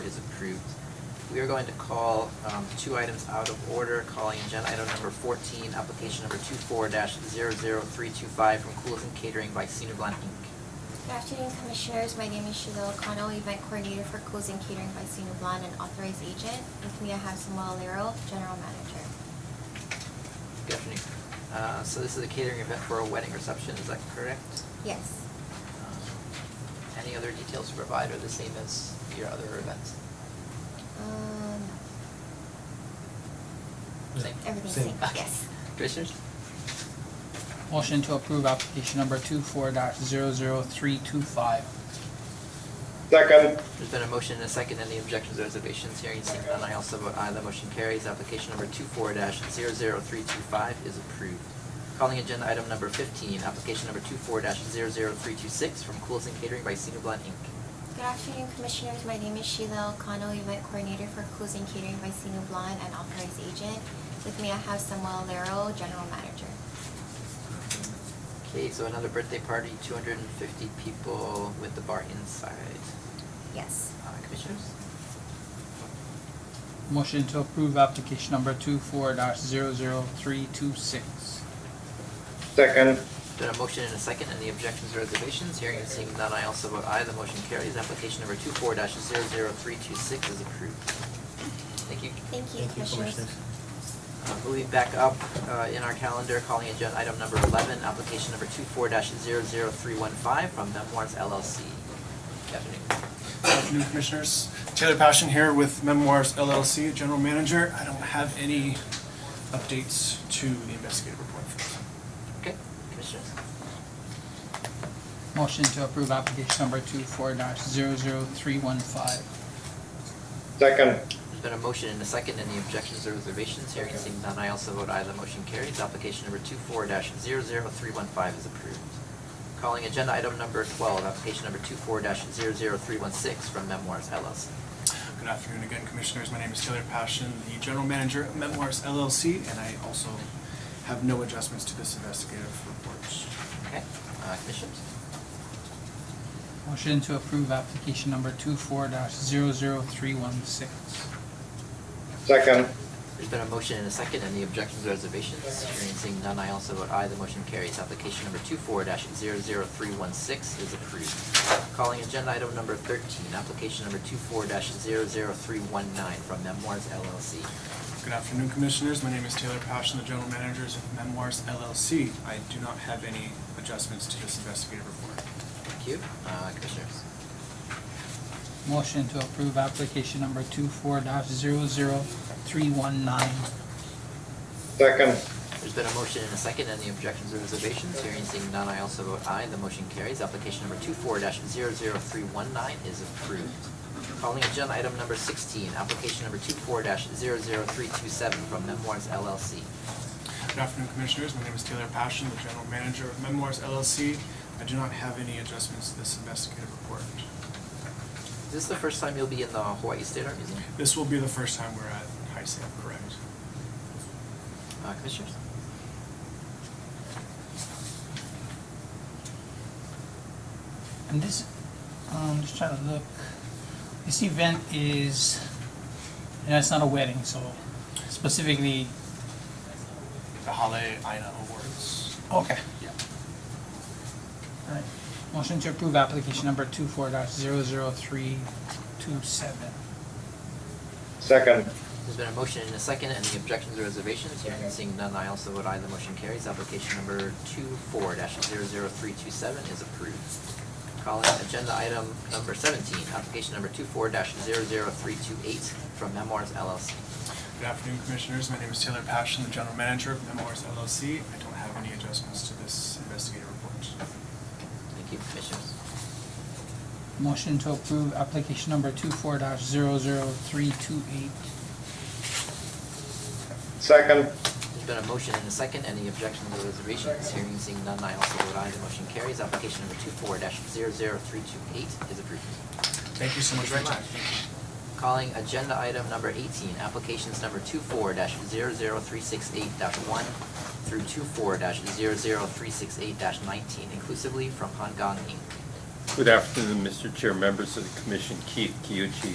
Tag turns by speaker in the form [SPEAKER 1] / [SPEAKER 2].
[SPEAKER 1] is approved. We are going to call um, two items out of order, calling agenda item number 14, application number 24-00325 from Coolers and Catering by Senior Glen Inc.
[SPEAKER 2] Good afternoon, Commissioners. My name is Sheila O'Connell, Event Coordinator for Cruise and Catering by Sino Blan and Authorized Agent. With me, I have Samuel Lero, General Manager.
[SPEAKER 1] Good afternoon. Uh, So this is a catering event for a wedding reception, is that correct?
[SPEAKER 2] Yes.
[SPEAKER 1] Um, Any other details to provide are the same as your other events?
[SPEAKER 2] Um,
[SPEAKER 1] Same?
[SPEAKER 2] everything's
[SPEAKER 3] Same.
[SPEAKER 2] same,
[SPEAKER 1] Okay.
[SPEAKER 2] yes.
[SPEAKER 1] Commissioners?
[SPEAKER 4] Motion to approve application number two four dash zero zero three two five.
[SPEAKER 5] Second,
[SPEAKER 1] There's been a motion and a second. Any objections or reservations? Hearing seen none, I also vote aye. The motion carries. Application number 24-00325 is approved. Calling agenda item number 15, application number 24-00326 from Cool's and Catering by Senior Blunt Inc.
[SPEAKER 2] Good afternoon, Commissioners. My name is Sheila O'Connell, Event Coordinator for Cruise and Catering by Sino Blan and Authorized Agent. With me, I have Samuel Lero, General Manager.
[SPEAKER 1] Okay, so another birthday party, 250 people with the bar inside.
[SPEAKER 2] Yes.
[SPEAKER 1] Uh, Commissioners?
[SPEAKER 4] Motion to approve application number two four dash zero zero three two six.
[SPEAKER 5] second,
[SPEAKER 1] Been a motion and a second. Any objections or reservations? Hearing and seeing none, I also vote aye. The motion carries. Application number 24-00326 is approved. Thank you.
[SPEAKER 2] Thank you,
[SPEAKER 3] Thank you, Commissioners.
[SPEAKER 1] Uh, Moving back up uh, in our calendar, calling agenda item number 11, application number 24-00315 from Memoirs LLC. Good Afternoon.
[SPEAKER 6] Good afternoon, Commissioners. Taylor Passion here with Memoirs LLC, General Manager. I don't have any updates to the investigative report for this.
[SPEAKER 1] Okay, commissioners?
[SPEAKER 4] Motion to approve application number two four dash zero zero three one five.
[SPEAKER 5] second,
[SPEAKER 1] There's been a motion and a second. Any objections or reservations? Hearing and seeing none, I also vote aye. The motion carries. Application number 24-00315 is approved. Calling agenda item number 12, application number 24-00316 from Memoirs LLC.
[SPEAKER 6] Good afternoon again, Commissioners. My name is Taylor Passion, the General Manager of Memoirs LLC, and I also have no adjustments to this investigative report.
[SPEAKER 1] Okay, uh, commissioners?
[SPEAKER 4] Motion to approve application number two four dash zero zero three one six.
[SPEAKER 5] second,
[SPEAKER 1] There's been a motion and a second. Any objections or reservations? Hearing and seeing none, I also vote aye. The motion carries. Application number 24-00316 is approved. Calling agenda item number 13, application number 24-00319 from Memoirs LLC.
[SPEAKER 6] Good afternoon, Commissioners. My name is Taylor Passion, the General Manager of Memoirs LLC. I do not have any adjustments to this investigative report.
[SPEAKER 1] Thank you. Uh, Commissioners?
[SPEAKER 4] Motion to approve application number two four dash zero zero three one nine.
[SPEAKER 5] second,
[SPEAKER 1] There's been a motion and a second. Any objections or reservations? Hearing and seeing none, I also vote aye. The motion carries. Application number 24-00319 is approved. Calling agenda item number 16, application number 24-00327 from Memoirs LLC.
[SPEAKER 6] Good afternoon, Commissioners. My name is Taylor Passion, the General Manager of Memoirs LLC. I do not have any adjustments to this investigative report.
[SPEAKER 1] Is this the first time you'll be in the Hawaii State Art Museum?
[SPEAKER 6] This will be the first time we're at High Sam, correct?
[SPEAKER 1] Uh, Commissioners?
[SPEAKER 4] And this, um, just trying to look, this event is, and it's not a wedding, so specifically,
[SPEAKER 6] The Hale Aina Awards.
[SPEAKER 4] okay.
[SPEAKER 6] Yeah.
[SPEAKER 4] Alright, motion to approve application number two four dash zero zero three two seven.
[SPEAKER 5] second,
[SPEAKER 1] There's been a motion and a second. Any objections or reservations? Hearing and seeing none, I also vote aye. The motion carries. Application number 24-00327 is approved. Calling agenda item number 17, application number 24-00328 from Memoirs LLC.
[SPEAKER 6] Good afternoon, Commissioners. My name is Taylor Passion, the General Manager of Memoirs LLC. I don't have any adjustments to this investigative report.
[SPEAKER 1] Thank you, commissioners.
[SPEAKER 4] Motion to approve application number two four dash zero zero three two eight.
[SPEAKER 5] second,
[SPEAKER 1] There's been a motion and a second. Any objections or reservations? Hearing and seeing none, I also vote aye. The motion carries. Application number 24-00328 is approved.
[SPEAKER 6] Thank you so much for your time.
[SPEAKER 1] Calling agenda item number eighteen, applications number 24 dash one through 24 dash nineteen inclusively from Hong Kong Inc.
[SPEAKER 7] Good afternoon, Mr. Chair, members of the commission. Keith Kiuchi,